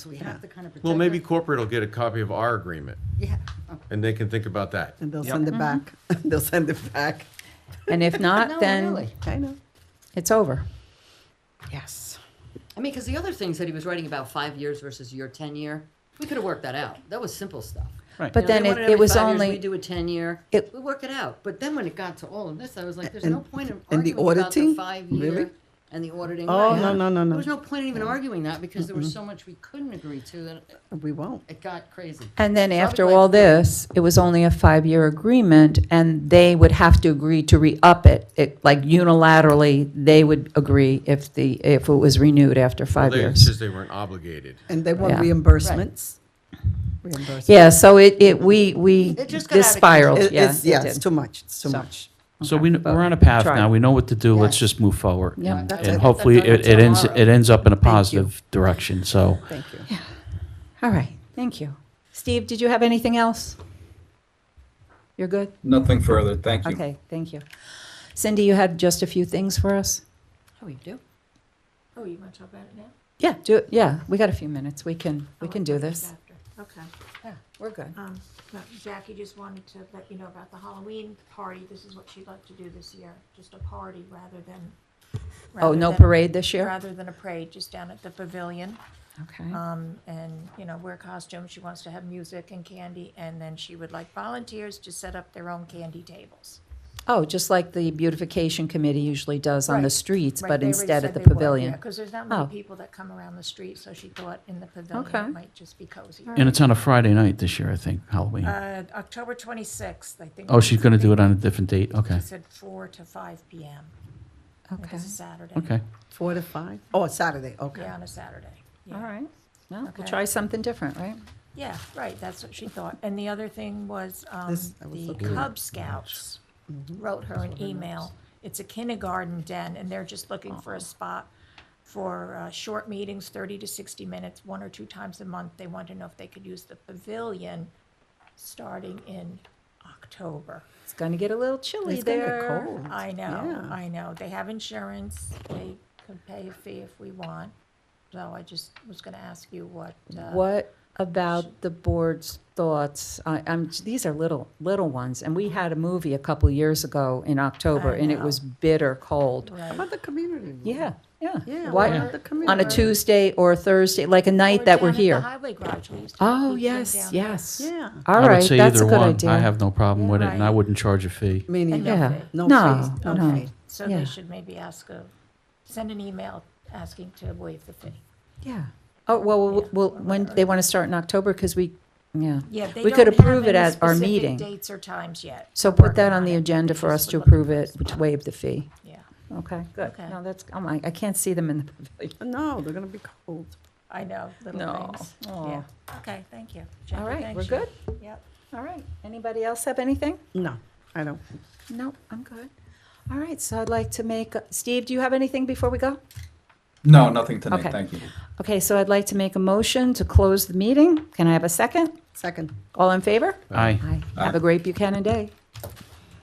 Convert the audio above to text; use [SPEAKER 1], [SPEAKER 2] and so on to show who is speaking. [SPEAKER 1] So we have to kind of protect.
[SPEAKER 2] Well, maybe
[SPEAKER 1] our-
[SPEAKER 2] corporate will get a copy of our agreement
[SPEAKER 1] Yeah,
[SPEAKER 3] Uh,
[SPEAKER 1] oh,
[SPEAKER 2] and they can think about that.
[SPEAKER 4] And they'll
[SPEAKER 5] Mm-hmm.
[SPEAKER 4] send it back. They'll send it back.
[SPEAKER 6] And if
[SPEAKER 1] No,
[SPEAKER 6] not, then
[SPEAKER 1] really.
[SPEAKER 4] I know.
[SPEAKER 6] it's over.
[SPEAKER 4] Yes.
[SPEAKER 3] I mean, because the other things that he was writing about five years versus your ten year, we could have worked that out. That was simple stuff.
[SPEAKER 7] Right.
[SPEAKER 3] You
[SPEAKER 6] But
[SPEAKER 3] know,
[SPEAKER 6] then
[SPEAKER 3] they
[SPEAKER 6] it,
[SPEAKER 3] wanted
[SPEAKER 6] it
[SPEAKER 3] every
[SPEAKER 6] was
[SPEAKER 3] five years,
[SPEAKER 6] only,
[SPEAKER 3] we do a ten year.
[SPEAKER 6] it-
[SPEAKER 3] we work it out. But then when it got to all of this, I was like, there's no
[SPEAKER 4] And-
[SPEAKER 3] point in
[SPEAKER 4] and the
[SPEAKER 3] arguing about the
[SPEAKER 4] auditing?
[SPEAKER 3] five year
[SPEAKER 4] Really?
[SPEAKER 3] and the auditing.
[SPEAKER 4] Oh,
[SPEAKER 3] right.
[SPEAKER 4] no, no, no, no.
[SPEAKER 3] There was no point in even arguing that because there was so much we couldn't agree to that
[SPEAKER 4] We won't.
[SPEAKER 3] it got crazy.
[SPEAKER 6] and then
[SPEAKER 3] So I'll be
[SPEAKER 6] after
[SPEAKER 3] glad-
[SPEAKER 6] all this, it was only a five-year agreement, and they would have to agree to re-up it. It, like unilaterally, they would agree if the, if it was renewed after five
[SPEAKER 2] They,
[SPEAKER 6] years.
[SPEAKER 2] since they weren't obligated.
[SPEAKER 4] And they want
[SPEAKER 6] Yeah.
[SPEAKER 4] reimbursements. Reimbursements.
[SPEAKER 6] Yeah, so it, it, we, we,
[SPEAKER 3] It just got
[SPEAKER 6] this
[SPEAKER 3] out of control.
[SPEAKER 6] spiraled,
[SPEAKER 4] It-
[SPEAKER 6] yeah.
[SPEAKER 4] it's, yeah,
[SPEAKER 6] it
[SPEAKER 4] it's
[SPEAKER 6] did.
[SPEAKER 4] too much. It's too
[SPEAKER 6] So-
[SPEAKER 4] much.
[SPEAKER 7] So we,
[SPEAKER 6] but
[SPEAKER 7] we're on a path
[SPEAKER 6] try.
[SPEAKER 7] now. We know what to do. Let's
[SPEAKER 3] Yes.
[SPEAKER 7] just move forward.
[SPEAKER 3] Yeah,
[SPEAKER 7] And-
[SPEAKER 3] that's it.
[SPEAKER 7] And
[SPEAKER 3] That's
[SPEAKER 7] hopefully
[SPEAKER 3] done
[SPEAKER 7] it, it ends,
[SPEAKER 3] tomorrow.
[SPEAKER 7] it ends up in a
[SPEAKER 4] you.
[SPEAKER 7] positive direction, so.
[SPEAKER 4] Thank you.
[SPEAKER 6] All right, thank you. Steve, did you have anything else? You're good?
[SPEAKER 8] Nothing further, thank you.
[SPEAKER 6] Okay, thank you. Cindy, you had just a few things for us?
[SPEAKER 3] Oh, you do.
[SPEAKER 5] Oh, you want to talk about it now?
[SPEAKER 6] Yeah, do, it. yeah, we got a few minutes, we can, we
[SPEAKER 5] Oh,
[SPEAKER 6] can
[SPEAKER 5] I
[SPEAKER 6] do
[SPEAKER 5] thought it was
[SPEAKER 6] this.
[SPEAKER 5] after. Okay.
[SPEAKER 6] Yeah, we're good.
[SPEAKER 5] Um, no, Jackie just wanted to let you know about the Halloween party. This is what she'd like to do this year, just a party rather than.
[SPEAKER 6] Oh,
[SPEAKER 5] rather
[SPEAKER 6] no
[SPEAKER 5] than-
[SPEAKER 6] parade this year?
[SPEAKER 5] Rather than a parade, just down at the pavilion.
[SPEAKER 6] Okay,
[SPEAKER 5] Um, and, you know, wear costumes. She wants to have music and candy. And then she would like volunteers to set up their own candy tables.
[SPEAKER 6] oh, just like the beautification committee usually does on the
[SPEAKER 5] Right,
[SPEAKER 6] streets,
[SPEAKER 5] Right,
[SPEAKER 6] but
[SPEAKER 5] they already
[SPEAKER 6] instead at
[SPEAKER 5] said
[SPEAKER 6] the
[SPEAKER 5] they would,
[SPEAKER 6] pavilion.
[SPEAKER 5] Yeah, because there's not
[SPEAKER 6] Oh.
[SPEAKER 5] many people that come around the street, so she thought in the pavilion
[SPEAKER 6] Okay.
[SPEAKER 5] it might just be cozy.
[SPEAKER 7] And it's on a Friday night this year, I think, Halloween.
[SPEAKER 5] Uh, October twenty-sixth, I think.
[SPEAKER 7] Oh, she's gonna do it on a different date,
[SPEAKER 5] She
[SPEAKER 7] okay,
[SPEAKER 5] said four to five PM. I think
[SPEAKER 6] Okay,
[SPEAKER 5] It's a Saturday.
[SPEAKER 7] okay.
[SPEAKER 4] Four to five? Oh, it's Saturday. Okay.
[SPEAKER 5] Yeah, on a Saturday. Yeah.
[SPEAKER 6] all right. No,
[SPEAKER 5] Okay.
[SPEAKER 6] we'll try something different, right?
[SPEAKER 5] Yeah, right, that's what she thought. And the other thing was, um,
[SPEAKER 4] This- I was
[SPEAKER 5] the
[SPEAKER 4] looking at-
[SPEAKER 5] Cub Scouts
[SPEAKER 6] Mm-hmm.
[SPEAKER 5] wrote her an email. It's a kindergarten den, and they're just looking for a spot for, uh, short meetings, thirty to sixty minutes, one or two times a month. They want to know if they could use the pavilion starting in October.
[SPEAKER 6] It's gonna get a little chilly
[SPEAKER 4] It's gonna get
[SPEAKER 6] there.
[SPEAKER 4] cold.
[SPEAKER 5] I know,
[SPEAKER 4] Yeah.
[SPEAKER 5] I know. They have insurance. They could pay a fee if we want. So I just was gonna ask you what, uh,
[SPEAKER 6] What about the board's thoughts? I, I'm, these are little, little ones, and we had a movie a couple years ago in October,
[SPEAKER 5] I
[SPEAKER 6] and it
[SPEAKER 5] know.
[SPEAKER 6] was bitter cold.
[SPEAKER 4] How
[SPEAKER 5] right.
[SPEAKER 4] about the community? room?
[SPEAKER 6] Yeah, yeah.
[SPEAKER 4] Yeah.
[SPEAKER 6] Why-
[SPEAKER 4] what about the community
[SPEAKER 6] On a
[SPEAKER 4] room?
[SPEAKER 6] Tuesday or a Thursday, like a night
[SPEAKER 5] Or
[SPEAKER 6] that we're
[SPEAKER 5] down at the
[SPEAKER 6] here.
[SPEAKER 5] highway garage. We used to have
[SPEAKER 6] Oh,
[SPEAKER 5] people
[SPEAKER 6] yes,
[SPEAKER 5] down there.
[SPEAKER 6] yes.
[SPEAKER 4] Yeah.
[SPEAKER 6] All
[SPEAKER 7] I would
[SPEAKER 6] right,
[SPEAKER 7] say
[SPEAKER 6] that's a
[SPEAKER 7] either
[SPEAKER 6] good
[SPEAKER 7] one. I
[SPEAKER 6] idea.
[SPEAKER 7] have no problem with it, and I
[SPEAKER 5] Right.
[SPEAKER 7] wouldn't charge a fee.
[SPEAKER 4] Meaning,
[SPEAKER 5] And no
[SPEAKER 6] Yeah.
[SPEAKER 5] fee.
[SPEAKER 4] no
[SPEAKER 6] No,
[SPEAKER 4] fees,
[SPEAKER 6] no.
[SPEAKER 4] no fee.
[SPEAKER 5] So they
[SPEAKER 6] Yeah.
[SPEAKER 5] should maybe ask a, send an email asking to waive the fee.
[SPEAKER 6] Yeah. Oh, well,
[SPEAKER 5] Yeah,
[SPEAKER 6] well, well,
[SPEAKER 5] or
[SPEAKER 6] when,
[SPEAKER 5] whatever.
[SPEAKER 6] they want to start in October, because we, yeah.
[SPEAKER 5] Yeah, they
[SPEAKER 6] We could
[SPEAKER 5] don't have
[SPEAKER 6] approve it
[SPEAKER 5] any
[SPEAKER 6] at our
[SPEAKER 5] specific
[SPEAKER 6] meeting.
[SPEAKER 5] Dates or times yet.
[SPEAKER 6] So
[SPEAKER 5] They're
[SPEAKER 6] put that
[SPEAKER 5] working
[SPEAKER 6] on the
[SPEAKER 5] it.
[SPEAKER 6] agenda for
[SPEAKER 5] Just
[SPEAKER 6] us to
[SPEAKER 5] would like
[SPEAKER 6] approve it,
[SPEAKER 5] respond.
[SPEAKER 6] to waive the fee.
[SPEAKER 5] Yeah,
[SPEAKER 6] Okay, good.
[SPEAKER 5] Okay.
[SPEAKER 6] No, that's, I'm like, I can't see them in the pavilion.
[SPEAKER 4] No, they're going to be cold.
[SPEAKER 5] I know, little
[SPEAKER 6] No.
[SPEAKER 5] things.
[SPEAKER 6] Aw.
[SPEAKER 5] Yeah, okay, thank you. Jackie,
[SPEAKER 6] All right,
[SPEAKER 5] thank
[SPEAKER 6] we're
[SPEAKER 5] you.
[SPEAKER 6] good?
[SPEAKER 5] Yep.
[SPEAKER 6] All right. Anybody else have anything?
[SPEAKER 4] No, I don't.
[SPEAKER 6] No, I'm good. All right, so I'd like to make, Steve, do you have anything before we go?
[SPEAKER 8] No, nothing tonight,
[SPEAKER 6] Okay.
[SPEAKER 8] thank you.
[SPEAKER 6] Okay, so I'd like to make a motion to close the meeting. Can I have a second?
[SPEAKER 4] Second.
[SPEAKER 6] All in favor?
[SPEAKER 7] Aye.
[SPEAKER 6] Aye. Have a great Buchanan day.